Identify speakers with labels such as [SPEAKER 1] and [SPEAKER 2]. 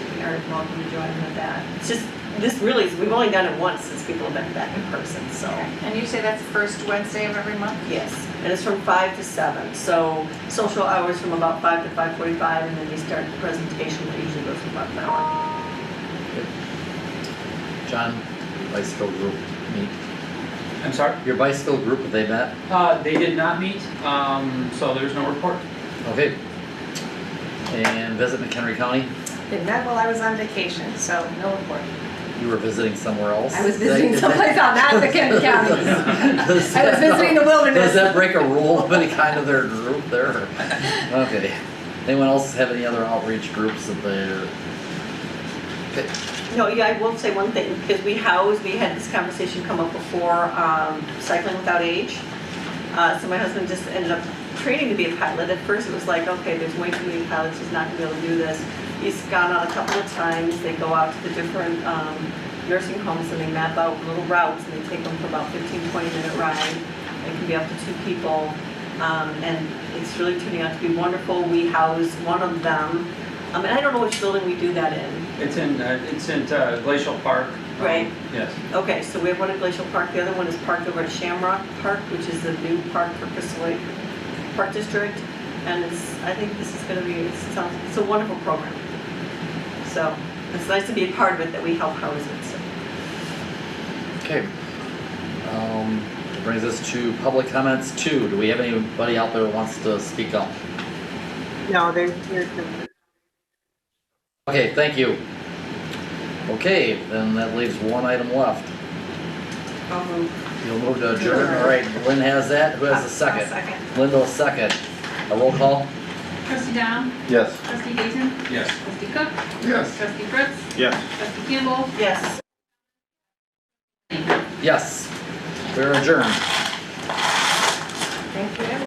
[SPEAKER 1] is welcome to join in with that. It's just, this really, is we've only done it once since people have been back in person, so.
[SPEAKER 2] And you say that's the first Wednesday of every month?
[SPEAKER 1] Yes, and it's from five to seven, so social hours from about five to five forty-five, and then we start the presentation, that usually goes for about an hour.
[SPEAKER 3] John, your bicycle group meet,
[SPEAKER 4] I'm sorry?
[SPEAKER 3] your bicycle group, have they met?
[SPEAKER 4] Uh, they did not meet, um, so there's no report.
[SPEAKER 3] Okay. And visit McHenry County,
[SPEAKER 2] Did not while I was on vacation, so no report.
[SPEAKER 3] you were visiting somewhere else?
[SPEAKER 2] I was
[SPEAKER 3] Did I-
[SPEAKER 2] visiting
[SPEAKER 3] did
[SPEAKER 2] someplace
[SPEAKER 3] that-
[SPEAKER 2] on that McHenry County.
[SPEAKER 3] Does
[SPEAKER 2] I was
[SPEAKER 3] that-
[SPEAKER 2] visiting the
[SPEAKER 3] Does
[SPEAKER 2] wilderness.
[SPEAKER 3] that break a rule of any kind of their group there? Okay. Anyone else have any other outreach groups that they're?
[SPEAKER 1] No, yeah, I will say one thing, because we house, we had this conversation come up before, um, cycling without age. Uh, so my husband just ended up training to be a pilot. At first, it was like, okay, there's way too many pilots, he's not gonna be able to do this. He's gone out a couple of times, they go out to the different, um, nursing homes and they map out little routes and they take them for about 15, 20 minute ride. It can be up to two people. Um, and it's really turning out to be wonderful. We house one of them. Um, and I don't know which building we do that in.
[SPEAKER 4] It's in, uh, it's in uh, Glacial Park. um,
[SPEAKER 1] Right.
[SPEAKER 4] Yes.
[SPEAKER 1] Okay, so we have one at Glacial Park, the other one is parked over at Shamrock Park, which is the new park for Crystal Lake Park District. And it's, I think this is gonna be, it's, it's a- it's a wonderful program. So, it's nice to be a part of it, that we help house it, so.
[SPEAKER 3] Okay. Um, that brings us to public comments two. Do we have anybody out there who wants to speak up?
[SPEAKER 5] No, they're, they're,
[SPEAKER 3] Okay, thank you. Okay, then that leaves one item left.
[SPEAKER 1] I'll move.
[SPEAKER 3] You'll move to adjourn, all right, Lynn has that, who has the second?
[SPEAKER 2] Second.
[SPEAKER 3] Linda, second. A roll call?
[SPEAKER 6] Trustee Dom,
[SPEAKER 7] Yes.
[SPEAKER 6] trustee Gaten,
[SPEAKER 4] Yes.
[SPEAKER 6] trustee Cook,
[SPEAKER 7] Yes.
[SPEAKER 6] trustee Fritz,
[SPEAKER 7] Yes.
[SPEAKER 6] trustee Campbell,
[SPEAKER 1] Yes.
[SPEAKER 3] Yes. We're adjourned.
[SPEAKER 2] Thank you.